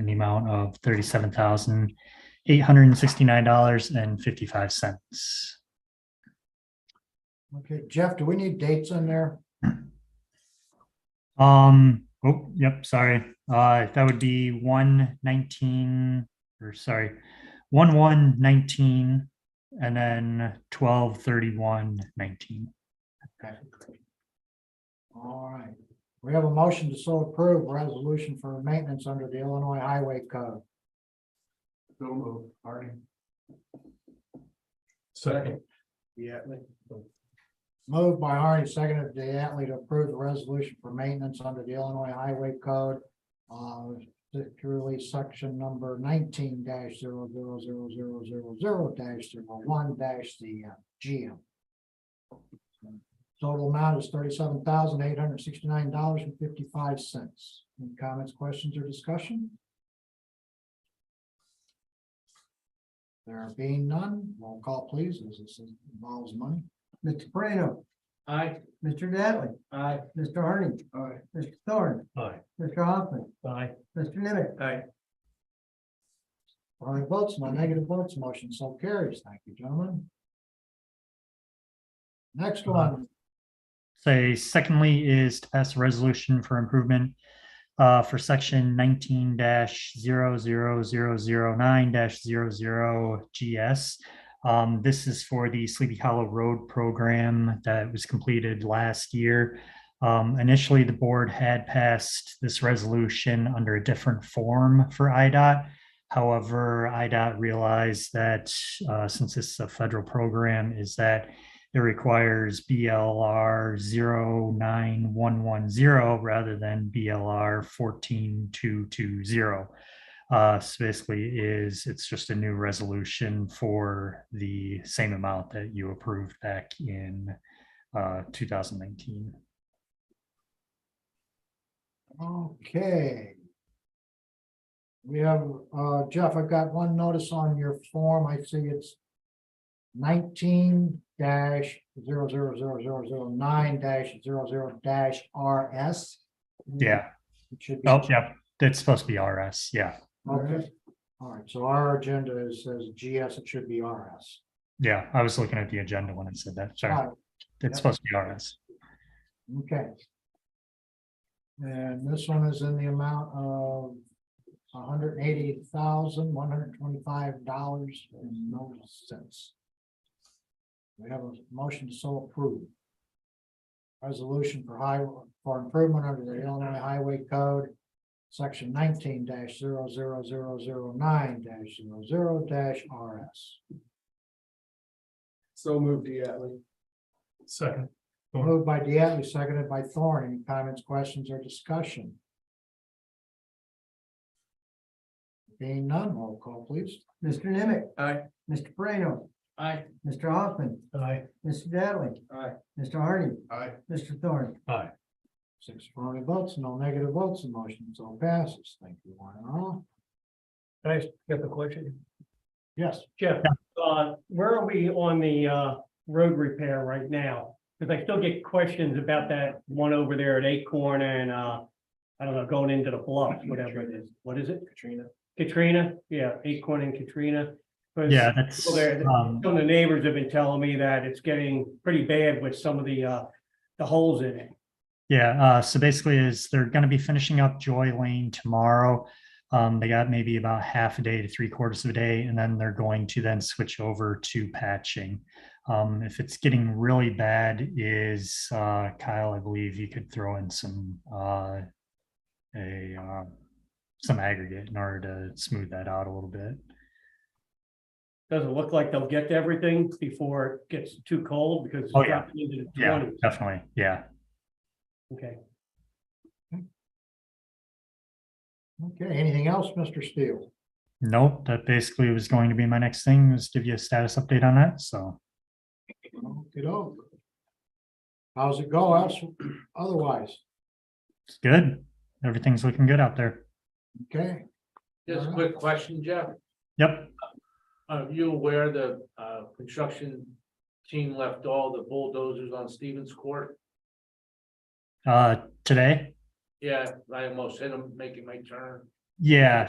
amount of thirty-seven thousand eight hundred and sixty-nine dollars and fifty-five cents. Okay, Jeff, do we need dates in there? Um, oh, yep, sorry. Uh, that would be one nineteen, or sorry, one one nineteen, and then twelve thirty-one nineteen. All right. We have a motion to so approve resolution for maintenance under the Illinois Highway Code. So moved, Harding. Second. Yeah. Moved by Harney, seconded by Atlee to approve the resolution for maintenance under the Illinois Highway Code. Uh, particularly section number nineteen dash zero zero zero zero zero zero dash zero one dash the uh, GM. Total amount is thirty-seven thousand eight hundred sixty-nine dollars and fifty-five cents. Any comments, questions, or discussion? There being none, roll call please, as this involves money. Mr. Prano, Aye. Mr. Dattley, Aye. Mr. Harney, Aye. Mr. Thorne, Aye. Mr. Hoffman, Aye. Mr. Nimitz. Aye. Five votes, no negative votes, motion so carries. Thank you, gentlemen. Next one, Say, secondly, is to pass a resolution for improvement uh, for section nineteen dash zero zero zero zero nine dash zero zero GS. Um, this is for the Sleepy Hollow Road program that was completed last year. Um, initially, the board had passed this resolution under a different form for IDOT. However, IDOT realized that uh, since this is a federal program, is that it requires BLR 09110 rather than BLR 14220. Uh, so basically is, it's just a new resolution for the same amount that you approved back in uh, 2019. okay. We have, uh, Jeff, I've got one notice on your form. I see it's nineteen dash zero zero zero zero zero nine dash zero zero dash RS. Mm-hmm. Yeah, It should be. oh, yeah, that's supposed to be RS, yeah, Okay, all right, so our agenda is, says GS, it should be RS. yeah, I was looking at the agenda when I said that, sorry, All it's supposed to be RS. right, Okay. And this one is in the amount of hundred and eighty thousand, one hundred and twenty-five dollars and no cents. We have a motion to so approve. Resolution for high, for improvement under the Illinois Highway Code, section nineteen 9 zero zero zero zero nine dash zero zero dash RS. So moved, Diatley. Second. Thorne. Moved by Diatley, seconded by Thorne. Any comments, questions, or discussion? Being none, roll call, please. Mr. Nimitz, Aye. Mr. Prano, Aye. Mr. Hoffman, Aye. Mr. Dattley, Aye. Mr. Harney, Aye. Mr. Thorne. Aye. Six affirmative votes, no negative votes, the motion so passes. Thank you, one and all. Can I get the question? Yes, Jeff, uh, where are we on the, uh, road repair right now? Because I still get questions about that one over there at Acorn and, uh, I don't know, going into the bluff, whatever it is. What is it? Katrina. Katrina? Yeah, Acorn and Katrina. 'Cause Yeah, that's, Well, there- um, Some of the neighbors have been telling me that it's getting pretty bad with some of the, uh, the holes in it. Yeah, uh, so basically is they're gonna be finishing up Joy Lane tomorrow. Um, they got maybe about half a day to three quarters of a day, and then they're going to then switch over to patching. Um, if it's getting really bad is, uh, Kyle, I believe you could throw in some, uh, a, uh, some aggregate in order to smooth that out a little bit. Doesn't look like they'll get to everything before it gets too cold because. it's Oh, yeah. dropping into the Yeah, 20s. definitely, yeah. Okay. okay, anything else, Mr. Steele? Nope, that basically was going to be my next thing, was give you a status update on that, so. Okey-doke. How's it go else, otherwise? It's good. Everything's looking good out there. Okay, Just a quick question, Jeff. Yep. Are you aware the uh construction team left all the bulldozers on Stevens Court? Uh, today? Yeah, I almost hit them making my turn. Yeah,